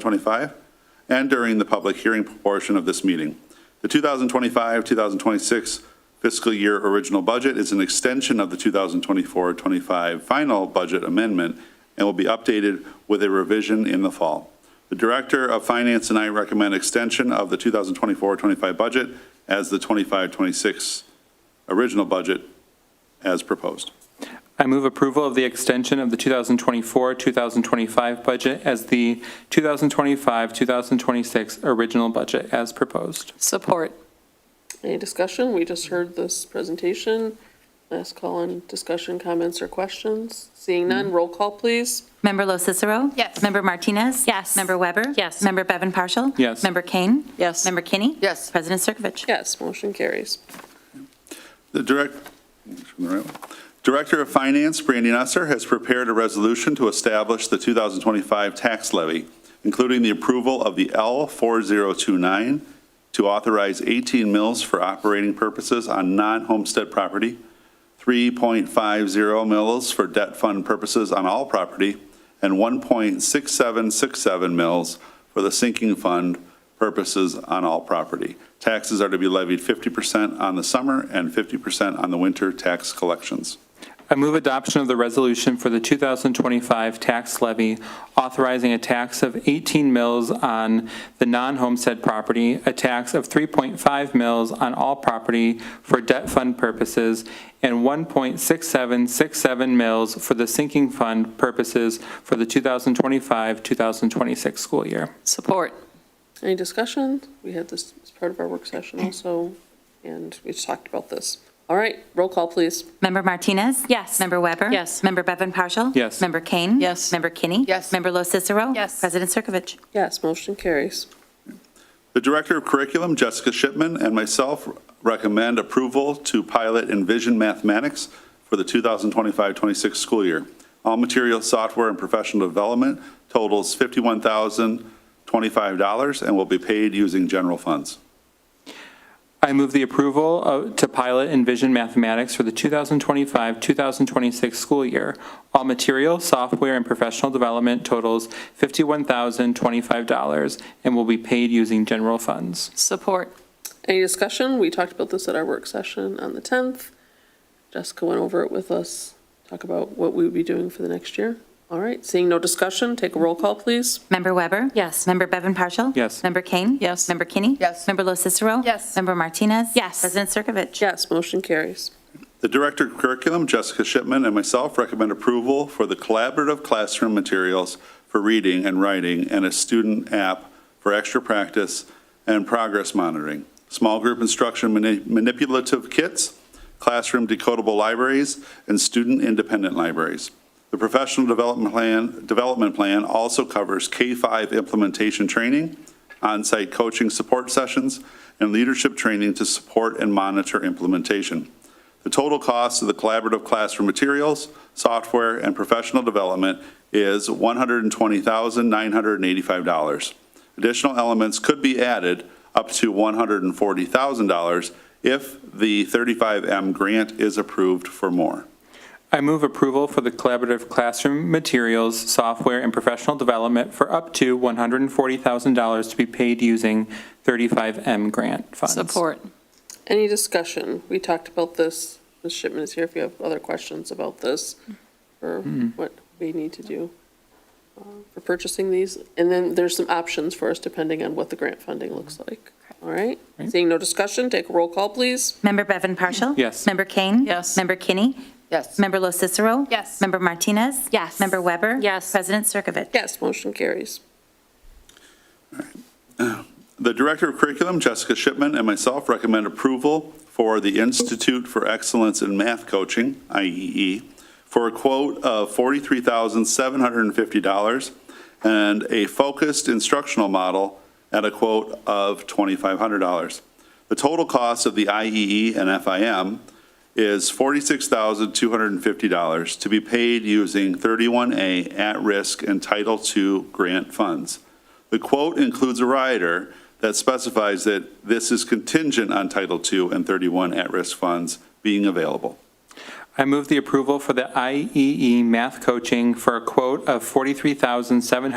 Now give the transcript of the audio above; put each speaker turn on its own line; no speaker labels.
2025, and during the public hearing portion of this meeting. The 2025-2026 fiscal year original budget is an extension of the 2024-25 final budget amendment and will be updated with a revision in the fall. The Director of Finance and I recommend extension of the 2024-25 budget as the 25-26 original budget as proposed.
I move approval of the extension of the 2024-2025 budget as the 2025-2026 original budget as proposed.
Support.
Any discussion? We just heard this presentation. Last call on discussion, comments, or questions. Seeing none, roll call, please.
Member Lo Cicero?
Yes.
Member Martinez?
Yes.
Member Weber?
Yes.
Member Bevan Partial?
Yes.
Member Kane?
Yes.
Member Kinney?
Yes.
President Circovich?
Yes, motion carries.
The direct, Director of Finance, Brandy Nusser, has prepared a resolution to establish the 2025 tax levy, including the approval of the L4029 to authorize 18 mills for operating purposes on non-homestead property, 3.50 mills for debt fund purposes on all property, and 1.6767 mills for the sinking fund purposes on all property. Taxes are to be levied 50% on the summer and 50% on the winter tax collections.
I move adoption of the resolution for the 2025 tax levy authorizing a tax of 18 mills on the non-homestead property, a tax of 3.5 mills on all property for debt fund purposes, and 1.6767 mills for the sinking fund purposes for the 2025-2026 school year.
Support.
Any discussion? We had this as part of our work session also, and we just talked about this. All right, roll call, please.
Member Martinez?
Yes.
Member Weber?
Yes.
Member Bevan Partial?
Yes.
Member Kane?
Yes.
Member Kinney?
Yes.
Member Lo Cicero?
Yes.
President Circovich?
Yes, motion carries.
The Director of Curriculum, Jessica Shipman, and myself recommend approval to pilot Envision Mathematics for the 2025-26 school year. All material, software, and professional development totals $51,025 and will be paid using general funds.
I move the approval of- to pilot Envision Mathematics for the 2025-2026 school year. All material, software, and professional development totals $51,025 and will be paid using general funds.
Support.
Any discussion? We talked about this at our work session on the 10th. Jessica went over it with us, talk about what we would be doing for the next year. All right, seeing no discussion, take a roll call, please.
Member Weber?
Yes.
Member Bevan Partial?
Yes.
Member Kane?
Yes.
Member Kinney?
Yes.
Member Lo Cicero?
Yes.
Member Martinez?
Yes.
President Circovich?
Yes, motion carries.
The Director of Curriculum, Jessica Shipman, and myself recommend approval for the collaborative classroom materials for reading and writing and a student app for extra practice and progress monitoring, small group instruction mani- manipulative kits, classroom decodable libraries, and student-independent libraries. The professional development plan, development plan also covers K-5 implementation training, on-site coaching support sessions, and leadership training to support and monitor implementation. The total cost of the collaborative classroom materials, software, and professional development is $120,985. Additional elements could be added up to $140,000 if the 35M grant is approved for more.
I move approval for the collaborative classroom materials, software, and professional development for up to $140,000 to be paid using 35M grant funds.
Support.
Any discussion? We talked about this. Ms. Shipman is here if you have other questions about this or what we need to do uh, for purchasing these. And then there's some options for us depending on what the grant funding looks like. All right? Seeing no discussion, take a roll call, please.
Member Bevan Partial?
Yes.
Member Kane?
Yes.
Member Kinney?
Yes.
Member Lo Cicero?
Yes.
Member Martinez?
Yes.
Member Weber?
Yes.
President Circovich?
Yes, motion carries.
The Director of Curriculum, Jessica Shipman, and myself recommend approval for the Institute for Excellence in Math Coaching, IEE, for a quote of $43,750 and a focused instructional model at a quote of $2,500. The total cost of the IEE and FIM is $46,250 to be paid using 31A at-risk and Title II grant funds. The quote includes a rider that specifies that this is contingent on Title II and 31 at-risk funds being available.
I E move the approval for the IEE math coaching for a quote of 43700